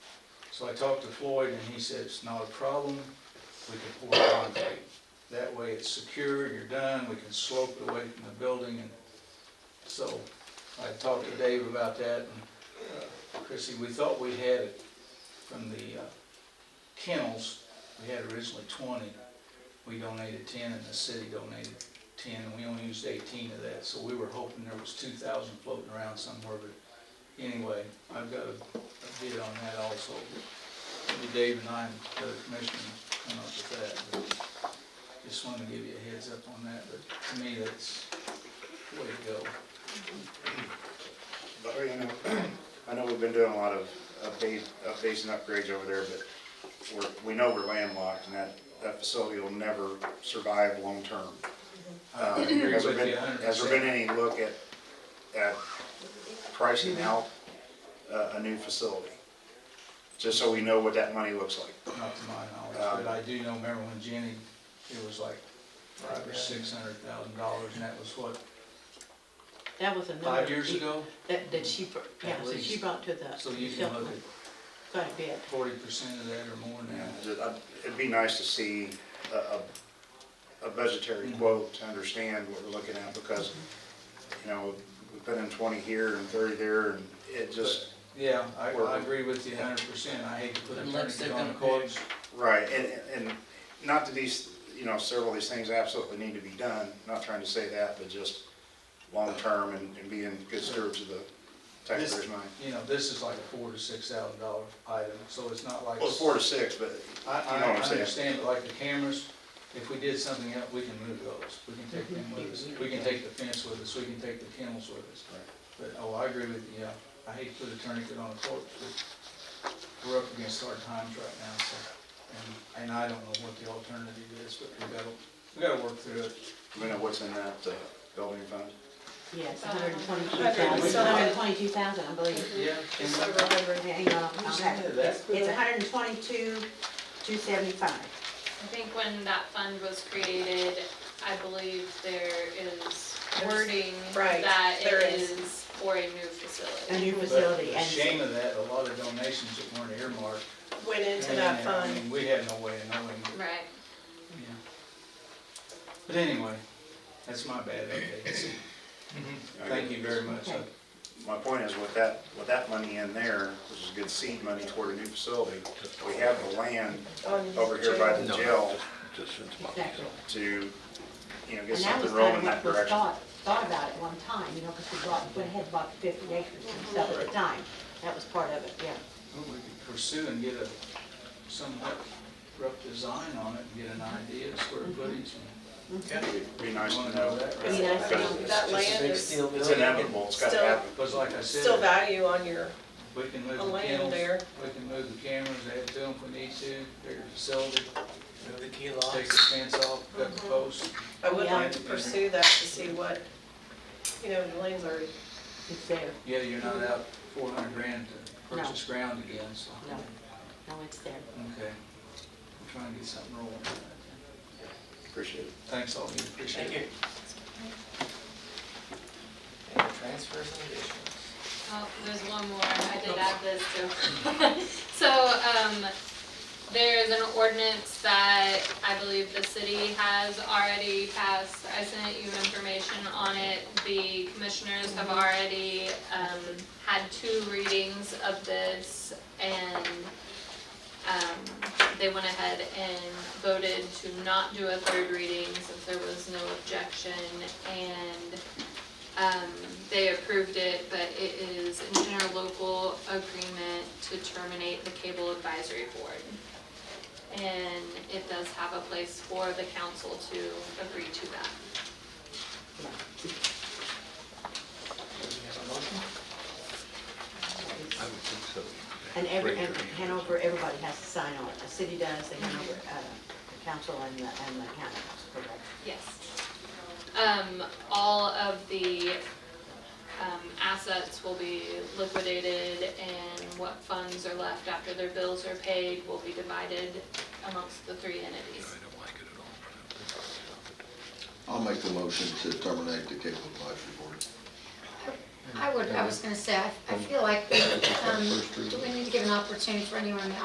So I talked to Floyd and he said, it's not a problem, we can pour concrete. That way it's secure, you're done, we can slope it away from the building and so I talked to Dave about that and uh, Chrissy, we thought we had it from the uh, kennels, we had originally twenty. We donated ten and the city donated ten and we only used eighteen of that, so we were hoping there was two thousand floating around somewhere, but anyway, I've got a a bid on that also. Maybe Dave and I and the other commissioner come up with that, but just wanted to give you a heads up on that, but to me, that's the way to go. But, you know, I know we've been doing a lot of updates, updates and upgrades over there, but we're, we know we're landlocked and that, that facility will never survive long-term. Uh, I agree Has there with you been, a Mm-hmm. hundred has there been percent. any look at, at pricing out uh, a, a new facility? Just so we know what that money looks like. Not to my knowledge, Um, but I do know, remember when Jenny, it was like five or six hundred thousand dollars, and that was what, That was another. five years deep- ago? That, that she, br- yeah, so she least. brought to the. So you can look at Quite a bit. forty percent of that or more now. Just- I'd- It'd be nice to see a, a, a budgetary Mm-hmm. quote to understand what we're looking at because, you know, we've been in twenty here and thirty there and it just, Yeah, I, I Or- agree with you a hundred percent, I hate to put Unless eternity they're on the gonna pay. courts. right, and, and not that these, you know, several of these things absolutely need to be done, not trying to say that, but just long-term and, and being good stewards of the taxpayers' money. You know, this is like a four to six thousand dollar item, so it's not like. Well, it's four to six, but I, you know I what I'm saying. understand, but like the cameras, if we did something else, we can move those, we can take them with us, we can take the fence with us, we can take the kennels with us. But, oh, I agree with you, yeah, I hate to put a tourniquet on the court, but we're up against hard times right now, so. And, and I don't know what the alternative is, but we gotta, we gotta work through it. we know what's in that uh, building fund. Yes, Uh, hundred and twenty-two hundred and thousand, some. hundred and twenty-two thousand, I believe. Yeah. Just over a hundred. Hang on, I'll have it. That's- It's hundred and twenty-two, two seventy-five. I think when that fund was created, I believe there is wording Right, that there it is. is for a new a facility. new But facility, the and shame of that, a lot of donations that weren't earmarked. went into that I fund. mean, We had no way of knowing. Right. Yeah. But anyway, that's my bad update. Thank you very much. I- My point is with that, with that money in there, which is good seed money toward a new facility, we have the land on over here by the No. jail Just since my. exactly. to, you know, get And that was something kind rolling of in that what was direction. thought, thought about at one time, you know, because we bought, went ahead and bought the fifty acres and stuff at the time. That was part of it, yeah. well, We could pursue and get a somewhat rough design on it and get an idea of square Mm-hmm. footage. and- It'd Be nice Wanna to know know. that, right? because Be nice to know. it's- That land is Steel It's building. inevitable, it's gotta Still- happen. Because like I still said, value on your, we can move a the land kennels, there. we can move the cameras, add to them if we need to, bigger facility, Move the key take locks. the fence off, cut Uh-huh. the posts. I would Yeah. like to pursue that to see what, you know, the land's already, It's there, Yeah, you're not out four hundred grand to purchase ground again, so. no, no, it's there. Okay. We're trying to get something rolling. on that. Appreciate it. Thanks all of you, appreciate it. Thank you. And transfers and additions. Oh, there's one more, I did add this too. So, um, there is an ordinance that I believe the city has already passed. I sent you information on it. The commissioners have already, um, had two readings of this and, um, they went ahead and voted to not do a third reading since there was no objection and um, they approved it, but it is an interlocal agreement to terminate the cable advisory board. And it does have a place for the council to agree to that. Yeah. Do we have a motion? It's- I would think so. And every, Raise and your hand. Hanover, everybody has to sign on it. The city does, the Hanover, uh, the council and the, and the county, correct? Yes. Um, all of the, um, assets will be liquidated and what funds are left after their bills are paid will be divided amongst the three I entities. don't like it at all. I don't think I would stop it. I'll make the motion to terminate the cable advisory board. I would, I was gonna say, I, I feel like, um, do we need to give an opportunity for anyone